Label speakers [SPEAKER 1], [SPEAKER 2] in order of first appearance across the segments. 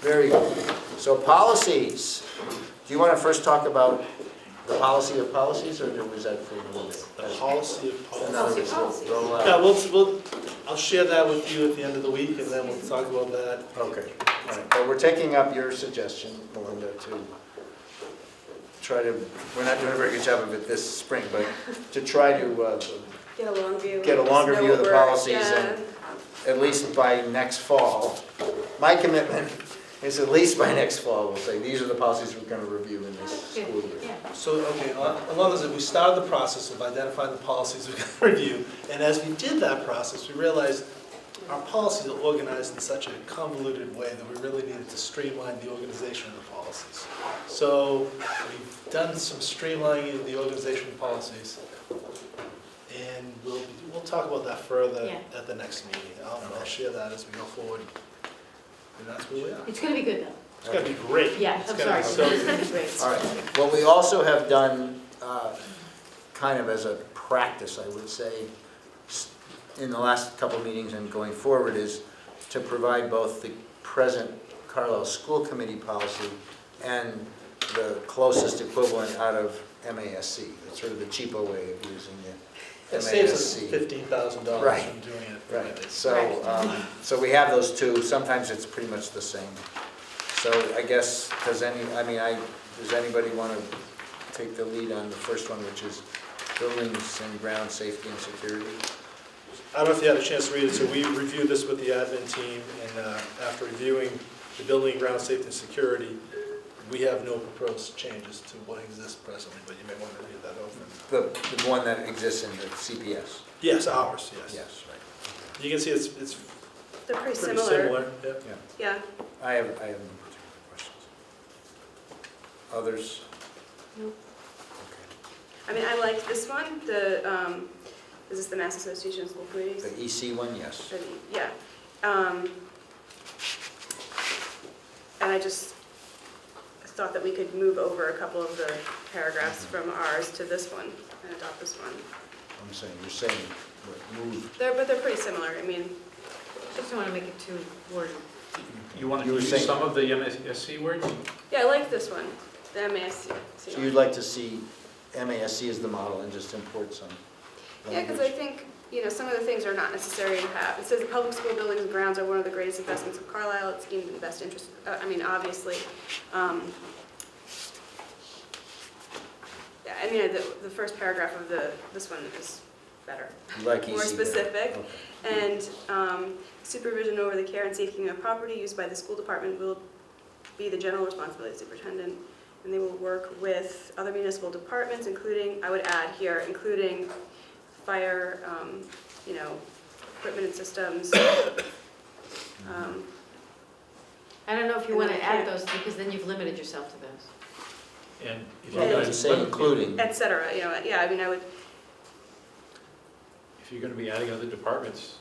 [SPEAKER 1] Very good. So policies, do you want to first talk about the policy of policies, or was that for another day?
[SPEAKER 2] The policy of policy.
[SPEAKER 1] Another day. Roll
[SPEAKER 2] Yeah,
[SPEAKER 1] out.
[SPEAKER 2] we'll, we'll, I'll share that with you at the end of the week, and then we'll talk about that.
[SPEAKER 1] Okay, all right. But we're taking up your suggestion, Melinda, to try to, we're not doing a very good job of it this spring, but to try to, uh,
[SPEAKER 3] Get a long view.
[SPEAKER 1] Get a longer
[SPEAKER 3] Know
[SPEAKER 1] view of
[SPEAKER 3] what
[SPEAKER 1] the
[SPEAKER 3] we're-
[SPEAKER 1] policies and- at least by next fall. My commitment is at least by next fall, we'll say, these are the policies we're going to review in this school year.
[SPEAKER 2] So, okay, as long as we started the process of identifying the policies we're gonna review, and as we did that process, we realized our policies are organized in such a convoluted way that we really needed to streamline the organization of the policies. So, we've done some streamlining of the organization of policies, and we'll, we'll talk about that further
[SPEAKER 4] Yeah.
[SPEAKER 2] at the next meeting. I'll, I'll share that as we go forward, and that's where we are.
[SPEAKER 4] It's gonna be good though.
[SPEAKER 2] It's gonna be great.
[SPEAKER 4] Yeah,
[SPEAKER 2] It's
[SPEAKER 4] I'm
[SPEAKER 2] gonna
[SPEAKER 4] sorry.
[SPEAKER 2] be
[SPEAKER 4] It's
[SPEAKER 2] so
[SPEAKER 4] gonna be great.
[SPEAKER 1] All right, what we also have done, uh, kind of as a practice, I would say, s- in the last couple of meetings and going forward, is to provide both the present Carlisle School Committee policy and the closest equivalent out of MASC, It's sort of the cheaper way of using the MASC.
[SPEAKER 2] It saves us fifteen thousand dollars
[SPEAKER 1] Right.
[SPEAKER 2] from doing it.
[SPEAKER 1] Right, so, um, so we have those two, sometimes it's pretty much the same. So I guess, does any, I mean, I, does anybody want to take the lead on the first one, which is buildings and ground safety and security?
[SPEAKER 2] I don't know if you had a chance to read it, so we reviewed this with the admin team, and uh, after reviewing the building, ground safety, and security, we have no proposed changes to what exists presently, but you may want to read that over.
[SPEAKER 1] The, the one that exists in the CPS?
[SPEAKER 2] Yes, ours, yes.
[SPEAKER 1] right.
[SPEAKER 2] You can see it's, it's
[SPEAKER 3] They're pretty
[SPEAKER 2] pretty
[SPEAKER 3] similar,
[SPEAKER 2] similar. yeah.
[SPEAKER 1] Yeah,
[SPEAKER 3] yeah.
[SPEAKER 1] I have, I have no particular questions. Others?
[SPEAKER 3] Nope.
[SPEAKER 1] Okay.
[SPEAKER 3] I mean, I liked this one, the, um, is this the Mass Association of School Committees?
[SPEAKER 1] The EC one, yes.
[SPEAKER 3] The- Yeah. Um, And I just thought that we could move over a couple of the paragraphs
[SPEAKER 1] Mm-hmm.
[SPEAKER 3] from ours to this one and adopt this one.
[SPEAKER 1] I'm saying, you're saying, what, move.
[SPEAKER 3] They're, but they're pretty similar, I mean,
[SPEAKER 4] Just don't wanna make it too wordy.
[SPEAKER 5] You want
[SPEAKER 1] You
[SPEAKER 5] to
[SPEAKER 1] were
[SPEAKER 5] use
[SPEAKER 1] saying-
[SPEAKER 5] some of the MSC words?
[SPEAKER 3] yeah, I like this one, the MASC.
[SPEAKER 1] So you'd like to see MASC as the model and just import some Um,
[SPEAKER 3] Yeah, because I
[SPEAKER 1] language?
[SPEAKER 3] think, you know, some of the things are not necessary to have. It says the public school buildings and grounds are one of the greatest investments of Carlisle, it's deemed in the best interest, uh, I mean, obviously. um, Yeah, I mean, the, the first paragraph of the, this one is better,
[SPEAKER 1] You like
[SPEAKER 3] more
[SPEAKER 1] easy there.
[SPEAKER 3] specific.
[SPEAKER 1] Okay.
[SPEAKER 3] And um, supervision over the care and safekeeping of property used by the school department will be the general responsibility of the superintendent. And they will work with other municipal departments, including, I would add here, including fire, um, you know, equipment and systems. Um,
[SPEAKER 4] I don't know if you
[SPEAKER 3] And
[SPEAKER 4] wanna
[SPEAKER 3] then I can't-
[SPEAKER 4] add those, because then you've limited yourself to those.
[SPEAKER 5] And if you're
[SPEAKER 1] Well,
[SPEAKER 5] going
[SPEAKER 1] I'd say
[SPEAKER 5] to,
[SPEAKER 1] including,
[SPEAKER 3] Et cetera, you know, yeah, I mean, I would,
[SPEAKER 5] if you're going to be adding other departments,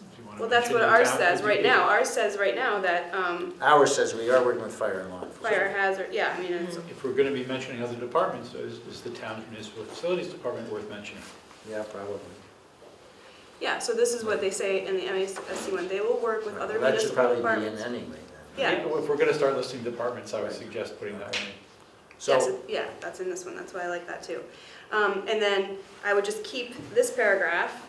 [SPEAKER 5] do you want to?
[SPEAKER 3] well, that's what ours says right now. Ours says right now that um,
[SPEAKER 1] ours says we are working with fire and law enforcement.
[SPEAKER 3] fire hazard, yeah, I mean, it's,
[SPEAKER 1] Mm-hmm.
[SPEAKER 5] If we're going to be mentioning other departments, is, is the town's municipal facilities department worth mentioning?
[SPEAKER 1] Yeah, probably.
[SPEAKER 3] yeah, so this is what they say in the MASC one, they will work with
[SPEAKER 1] Right,
[SPEAKER 3] other
[SPEAKER 1] well, That should
[SPEAKER 3] municipal
[SPEAKER 1] probably
[SPEAKER 3] departments.
[SPEAKER 1] be in anyway then.
[SPEAKER 3] Yeah.
[SPEAKER 5] If we're going to start listing departments, I would suggest putting that one in.
[SPEAKER 3] Yes,
[SPEAKER 1] So,
[SPEAKER 3] yeah, that's in this one, that's why I like that too. Um, and then I would just keep this paragraph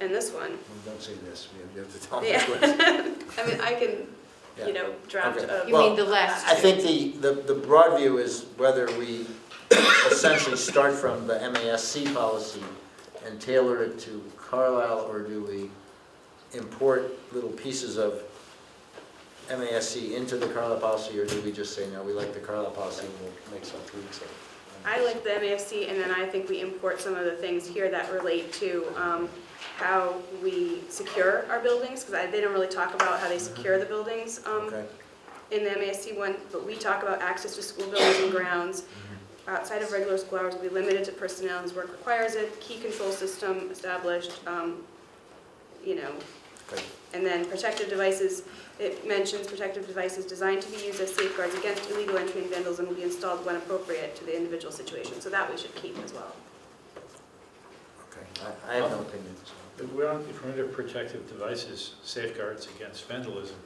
[SPEAKER 3] and this one.
[SPEAKER 1] well, don't say this, we have- you have to tell me
[SPEAKER 3] Yeah.
[SPEAKER 1] what.
[SPEAKER 3] I mean, I can,
[SPEAKER 1] Oh, Yeah.
[SPEAKER 3] you know, draft
[SPEAKER 1] Okay.
[SPEAKER 3] a,
[SPEAKER 4] You
[SPEAKER 1] Well,
[SPEAKER 4] mean the last
[SPEAKER 1] I
[SPEAKER 4] two.
[SPEAKER 1] think the, the, the broad view is whether we essentially start from the MASC policy and tailor it to Carlisle, or do we import little pieces of MASC into the Carlisle policy, or do we just say, no, we like the Carlisle policy, and we'll make some tweaks of it?
[SPEAKER 3] I like the MASC, and then I think we import some of the things here that relate to, um, how we secure our buildings, because I, they don't really talk about how they secure the buildings, um,
[SPEAKER 1] Mm-hmm. Okay,
[SPEAKER 3] in the MASC one, but we talk about access to school buildings and grounds. Outside of regular school hours will be limited to personnel as work requires it, key control system established, um, you know,
[SPEAKER 1] okay.
[SPEAKER 3] and then protective devices, it mentions protective devices designed to be used as safeguards against illegal entry and vandalism will be installed when appropriate to the individual situation, so that we should keep as well.
[SPEAKER 1] okay. I, I have no opinion, so.
[SPEAKER 5] If we're on, if we're under protective devices, safeguards against vandalism,